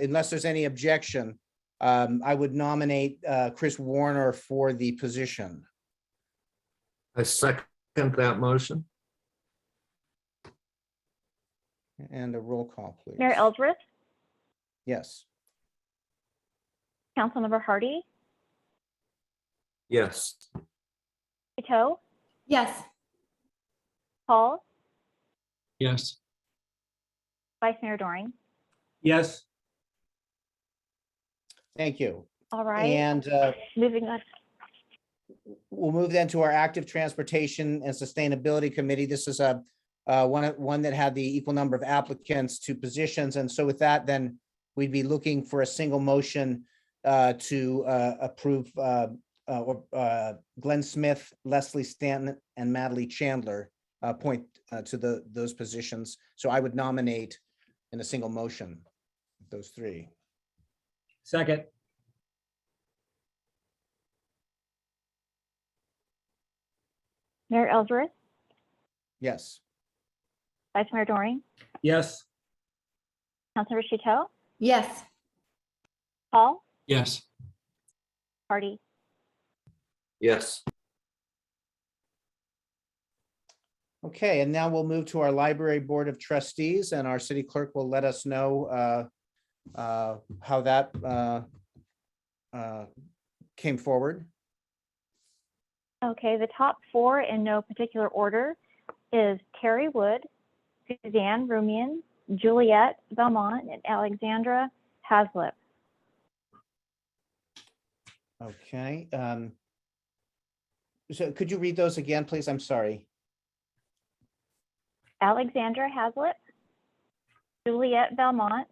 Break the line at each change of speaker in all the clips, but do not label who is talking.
unless there's any objection, um, I would nominate uh, Chris Warner for the position.
I second that motion.
And a roll call, please.
Mayor Eldredge,
Yes.
Councilmember Hardy,
Yes.
Kato,
yes,
Paul,
yes,
Vice Mayor Doring.
yes,
Thank you.
All right,
And uh,
moving on.
we'll move then to our active transportation and sustainability committee. This is a uh, one, one that had the equal number of applicants to positions. And so with that, then we'd be looking for a single motion uh, to uh, approve uh, uh, or, uh, Glenn Smith, Leslie Stanton, and Madely Chandler uh, point uh, to the, those positions. So I would nominate in a single motion, those three.
second,
Mayor Eldredge,
Yes.
Vice Mayor Doring,
yes,
Councilmember Kato,
yes,
Paul,
yes,
Hardy.
Yes.
Okay, and now we'll move to our library board of trustees and our city clerk will let us know uh, uh, how that uh, uh, came forward.
Okay, the top four in no particular order is Terry Wood, Suzanne Rumian, Juliette Belmont, and Alexandra Haslip.
Okay. um, So could you read those again, please? I'm sorry.
Alexandra Haslip, Juliette Belmont,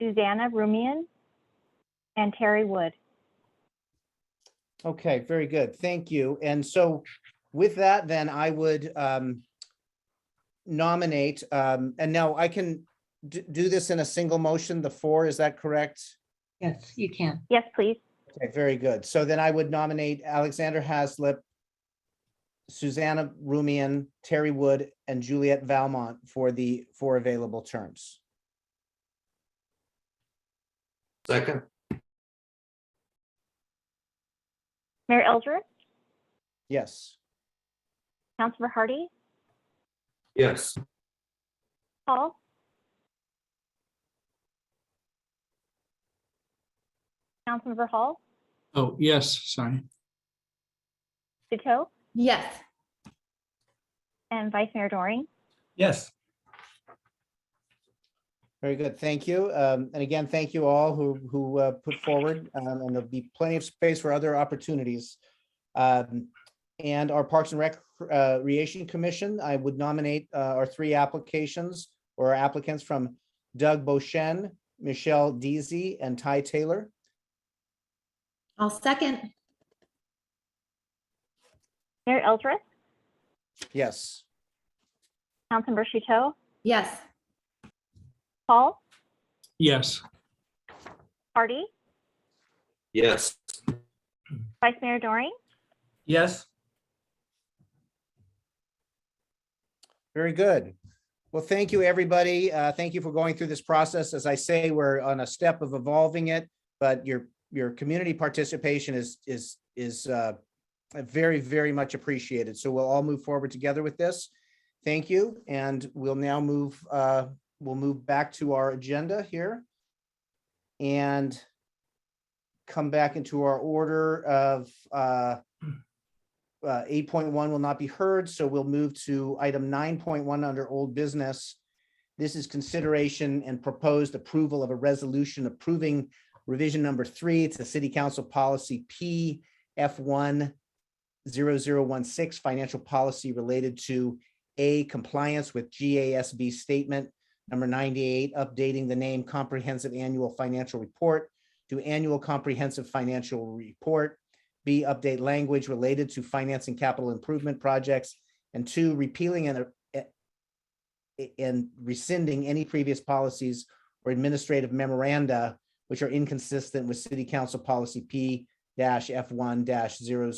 Susanna Rumian, and Terry Wood.
Okay, very good. Thank you. And so with that, then I would um, nominate, um, and now I can d- do this in a single motion, the four, is that correct?
yes, you can.
Yes, please.
Okay, very good. So then I would nominate Alexander Haslip, Susanna Rumian, Terry Wood, and Juliet Valmont for the four available terms.
Second?
Mayor Eldred,
Yes.
Councilmember Hardy,
Yes.
Paul, Councilmember Hall,
oh, yes, sorry,
Duto,
yes,
and Vice Mayor Doring.
yes,
Very good. Thank you. Um, And again, thank you all who, who uh, put forward, um, and there'll be plenty of space for other opportunities. Um, And our Parks and Rec- uh, Recreation Commission, I would nominate uh, our three applications or applicants from Doug Boshen, Michelle Deasy, and Ty Taylor.
I'll second,
Mayor Eldred,
Yes.
Councilmember Duto,
yes,
Paul,
yes,
Hardy,
Yes.
Vice Mayor Doring,
yes,
Very good. Well, thank you, everybody. Uh, Thank you for going through this process. As I say, we're on a step of evolving it, but your, your community participation is, is, is uh, very, very much appreciated. So we'll all move forward together with this. Thank you, and we'll now move, uh, we'll move back to our agenda here and come back into our order of uh, uh, eight point one will not be heard, so we'll move to item nine point one under old business. This is consideration and proposed approval of a resolution approving revision number three to City Council Policy P F one zero zero one six, financial policy related to A, compliance with GASB statement number ninety-eight, updating the name Comprehensive Annual Financial Report to Annual Comprehensive Financial Report. B, update language related to financing capital improvement projects. And two, repealing and uh, eh, and rescinding any previous policies or administrative memoranda which are inconsistent with City Council Policy P F one 16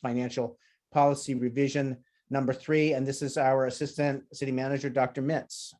Financial Policy Revision Number Three. And this is our Assistant City Manager, Dr. Mitz.